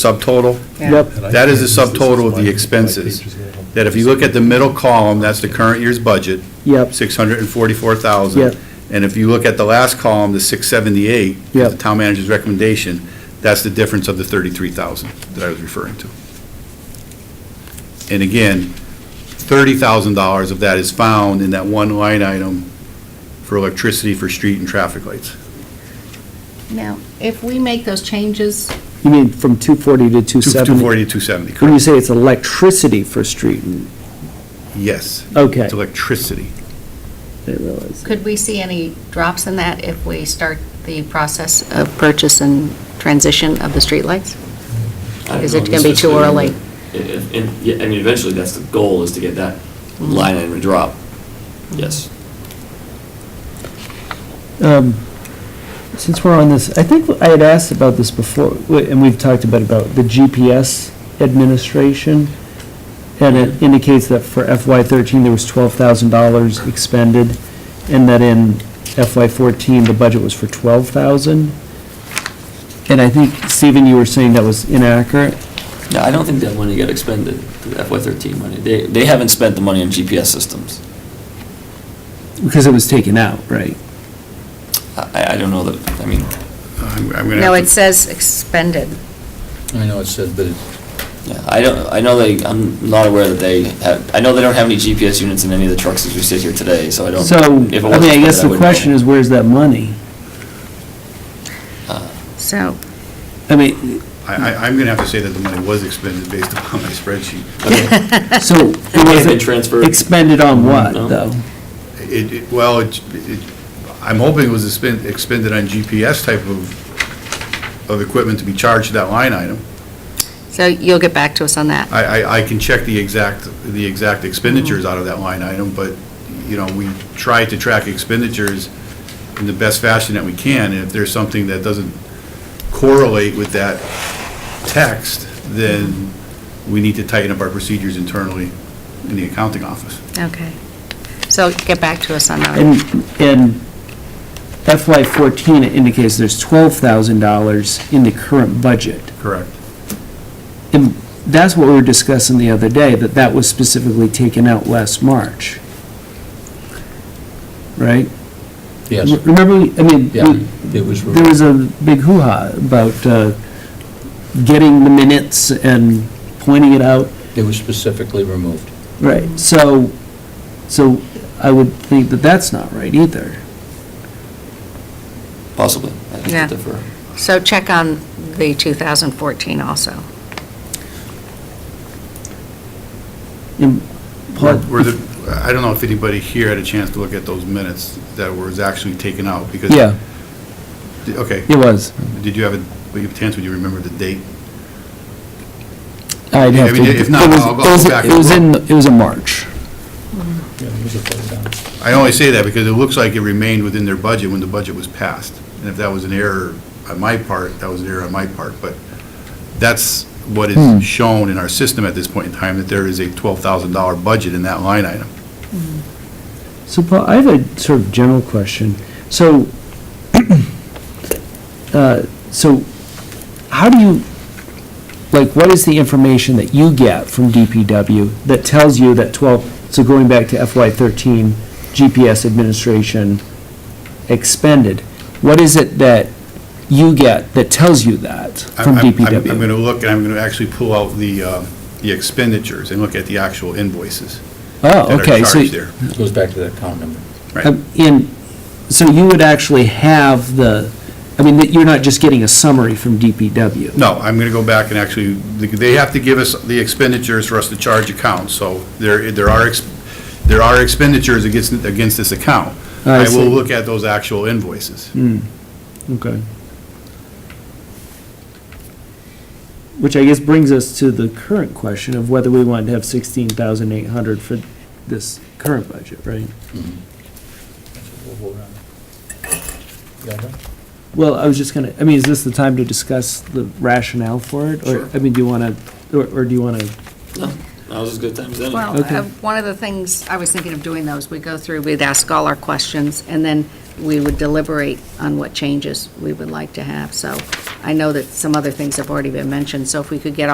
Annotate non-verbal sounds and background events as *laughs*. subtotal. Yep. That is the subtotal of the expenses. That if you look at the middle column, that's the current year's budget, Yep, six hundred and forty-four thousand. Yep. And if you look at the last column, the six seventy-eight, the Yep. town manager's recommendation, that's the difference of the thirty-three thousand that I was referring to. And again, thirty thousand dollars of that is found in that one line item for electricity for street and traffic lights. Now, if we make those changes, you mean from 240 to Two forty 270? to two seventy, When you correct? say it's electricity for street, and- Yes. okay, It's electricity. I realize. could we see any drops in that if we start the process of purchase and transition of the streetlights? Is it gonna be too early? If- And, yeah, I mean, eventually, that's the goal, is to get that Mm-hmm. line item to drop. Yes. Um, Since we're on this, I think I had asked about this before, w- and we've talked about, about the GPS administration, and it indicates that for FY13, there was $12,000 expended, and that in FY14, the budget was for 12,000. And I think, Stephen, you were saying that was inaccurate? No, I don't think that money got expended, the FY13 money. They, they haven't spent the money on GPS systems. Because it was taken out, right? I, I don't know that, I mean, I'm- I'm gonna No, have to- it says expended. I know it said, but it yeah, I don't, I know they, I'm not aware that they have, I know they don't have any GPS units in any of the trucks as we sit here today, so I don't. So, I if mean, it wasn't I for guess that, the wouldn't question know. is, where's that money? So, I mean, I, I- I'm going to have to say that the money was expended based *laughs* upon my spreadsheet. Okay. *laughs* so. It may have was been it transferred. Mm-hmm. Expended on what, No. though? It, it- well, it, it- I'm hoping it was expen- expended on GPS type of, of equipment to be charged to that line item. so you'll get back to us on that. I, I, I can check the exact, the exact expenditures out of that line item, but, you know, we try to track expenditures in the best fashion that we can, and if there's something that doesn't correlate with that text, then we need to tighten up our procedures internally in the accounting office. Okay. So get back to us on that. And, and FY fourteen indicates there's twelve thousand dollars in the current budget. Correct. And that's what we were discussing the other day, that that was specifically taken out last March. Right? Yes. Remember, we- I mean, Yeah, we- it was- there was a big hoo-ha about uh, getting the minutes and pointing it out. it was specifically removed. Right. So, so I would think that that's not right either. Possibly. I think Yeah. they differ. So check on the 2014 also. And Paul- Were the, I don't know if anybody here had a chance to look at those minutes that was actually taken out, because. Yeah, Okay, it was. did you have a, would you have a chance, would you remember the date? I'd Yeah, I have to. mean, if not, it was- I'll- I'll it was- go back It and was in, it was in March. Yeah, it was a photo. I only say that because it looks like it remained within their budget when the budget was passed. And if that was an error on my part, that was an error on my part, but that's what Hmm. is shown in our system at this point in time, that there is a $12,000 budget in that line item. So Paul, I have a sort of general question. So, *clears throat* uh, so how do you, like, what is the information that you get from DPW that tells you that 12, so going back to FY13 GPS administration expended, what is it that you get that tells you that I'm- from I'm- I'm DPW? going to look, and I'm going to actually pull out the, uh, the expenditures and look at the actual invoices Oh, that are okay, so. charged there. It goes back to that account number. Right. Um, And, so you would actually have the, I mean, that you're not just getting a summary from DPW? No, I'm going to go back and actually, they have to give us the expenditures for us to charge accounts, so there, there are, ex- there are expenditures against, against this account. I I will see. look at those actual invoices. Hmm, Okay. Which I guess brings us to the current question of whether we want to have 16,800 for this current budget, right? Mm-hmm. We'll vote on it. You all done? Well, I was just gonna, I mean, is this the time to discuss the rationale for it? Or, Sure. I mean, do you want to, or or do you want to, No, that was as good time as any. Well, Okay. uh, one of the things I was thinking of doing though is we go through, we'd ask all our questions, and then we would deliberate on what changes we would like to have. So I know that some other things have already been mentioned, so if we could get